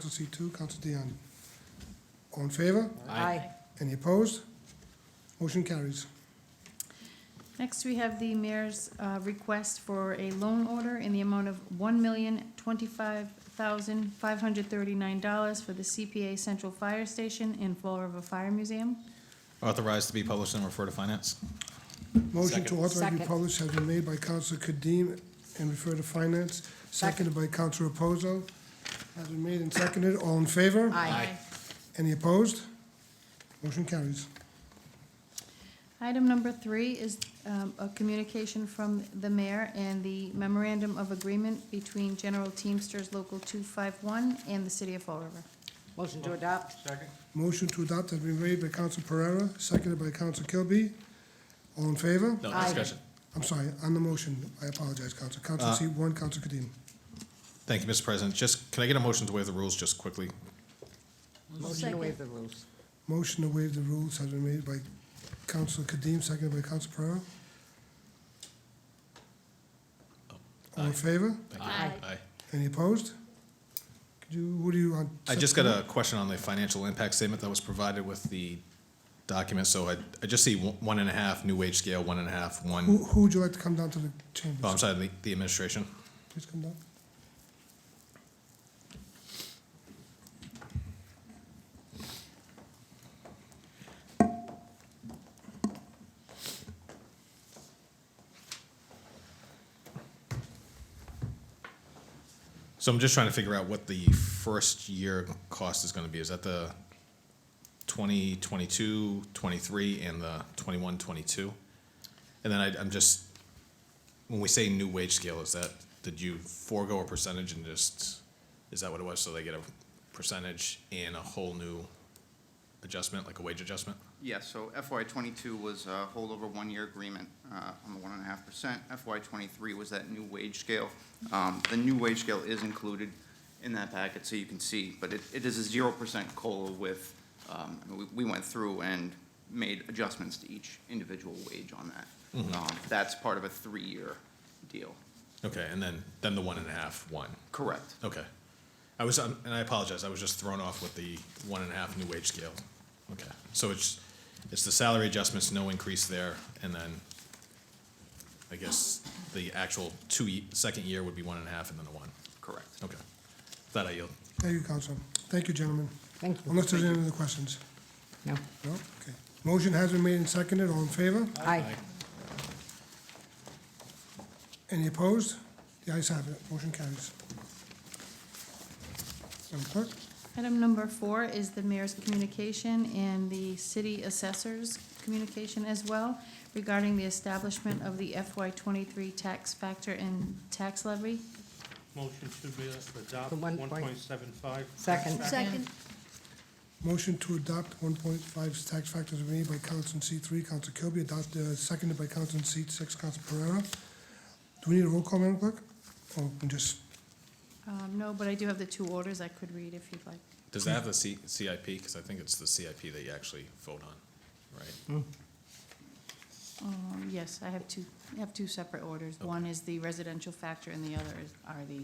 Council C2, Council Dion. All in favor? Aye. Any opposed? Motion carries. Next, we have the mayor's uh, request for a loan order in the amount of one million twenty-five thousand five hundred thirty-nine dollars for the CPA Central Fire Station and Fall River Fire Museum. Authorized to be published and refer to finance. Motion to authorize Second. republish has been made by Council Kadim and refer to finance, seconded by Council Reposo. Has been made and seconded. All in favor? Aye. Any opposed? Motion carries. Item number three is um, a communication from the mayor and the memorandum of agreement between General Teamsters Local two-five-one and the city of Fall River. Motion to adopt? Motion to adopt has been made by Council Pereira, seconded by Council Kilby. All in favor? No Aye. discussion. Uh, I'm sorry, on the motion, I apologize, Council. Council C1, Council Kadim. Thank you, Mr. President. Just, can I get a motion to waive the rules just quickly? Motion to waive the rules. Motion to waive the rules has been made by Council Kadim, seconded by Council Pereira. All in favor? Thank you. Aye. Aye. Any opposed? Could you, what do you want? I just got a question on the financial impact statement that was provided with the document. So I, I just see one one and a half, new wage scale, one and a half, Who, one, who would you like to come down to the oh, I'm chambers? sorry, the- the administration. Please come down. So I'm just trying to figure out what the first year cost is gonna be. Is that the 20, 22, 23, and the 21, 22? And then I, I'm just, when we say new wage scale, is that, did you forego a percentage and just, is that what it was? So they get a percentage and a whole new adjustment, like a wage adjustment? Yes, so FY twenty-two was a holdover one-year agreement uh, on the one and a half percent. FY twenty-three was that new wage scale. Um, The new wage scale is included in that packet, so you can see, but it, it is a zero percent COLA with, um, I mean, we, we went through and made adjustments to each individual wage on that. Um, That's part of a three-year deal. Okay, and then, then the one and a half, one. Correct. Okay. I was, um, and I apologize, I was just thrown off with the one and a half new wage scale. Okay, so it's, it's the salary adjustments, no increase there, and then I guess the actual two, ye- second year would be one and a half and then the one. Correct. Okay. That I yield. Thank you, Council. Thank you, gentlemen. Thank you. Unless there's any other questions? No. No? Okay. Motion has been made and seconded. All in favor? Aye. Any opposed? The ayes have it. Motion carries. Madam Clerk? Item number four is the mayor's communication and the city assessor's communication as well regarding the establishment of the FY twenty-three tax factor and tax levy. Motion to be adopt The one one point- point seven five. Second. Second. Motion to adopt 1.5 tax factors made by Council C3, Council Kilby, adopted, uh, seconded by Council C6, Council Pereira. Do we need a roll call, Madam Clerk? Or we can just, Um, no, but I do have the two orders I could read if you'd like. Does that have the C, CIP? Because I think it's the CIP that you actually vote on, right? Um, yes, I have two, I have two separate orders. One is the residential factor and the other is, are the,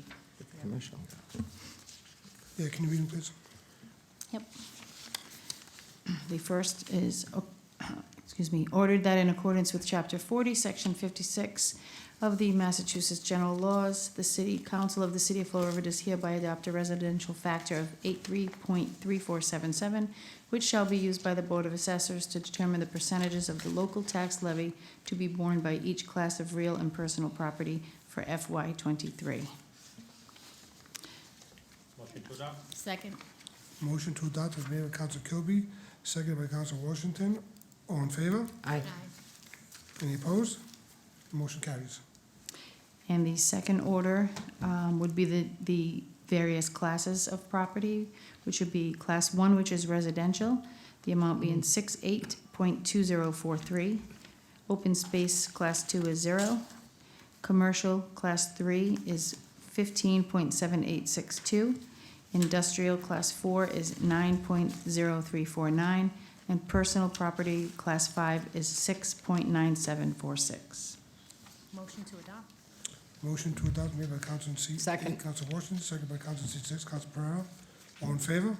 Commercial. yeah, can you read them, please? Yep. The first is, oh, excuse me, ordered that in accordance with Chapter 40, Section 56 of the Massachusetts General Laws, the City Council of the City of Fall River does hereby adopt a residential factor of 83.3477, which shall be used by the Board of Assessors to determine the percentages of the local tax levy to be borne by each class of real and personal property for FY '23. Motion to adopt. Second. Motion to adopt is made by Council Kilby, seconded by Council Washington. All in favor? Aye. Any opposed? Motion carries. And the second order um, would be the, the various classes of property, which would be class one, which is residential, the amount being six eight point two zero four three. Open space, class two is zero. Commercial, class three is fifteen point seven eight six two. Industrial, class four is nine point zero three four nine. And personal property, class five is six point nine seven four six. Motion to adopt. Motion to adopt made by Council C. Second. Council Washington, seconded by Council C six, Council Pereira. All in favor?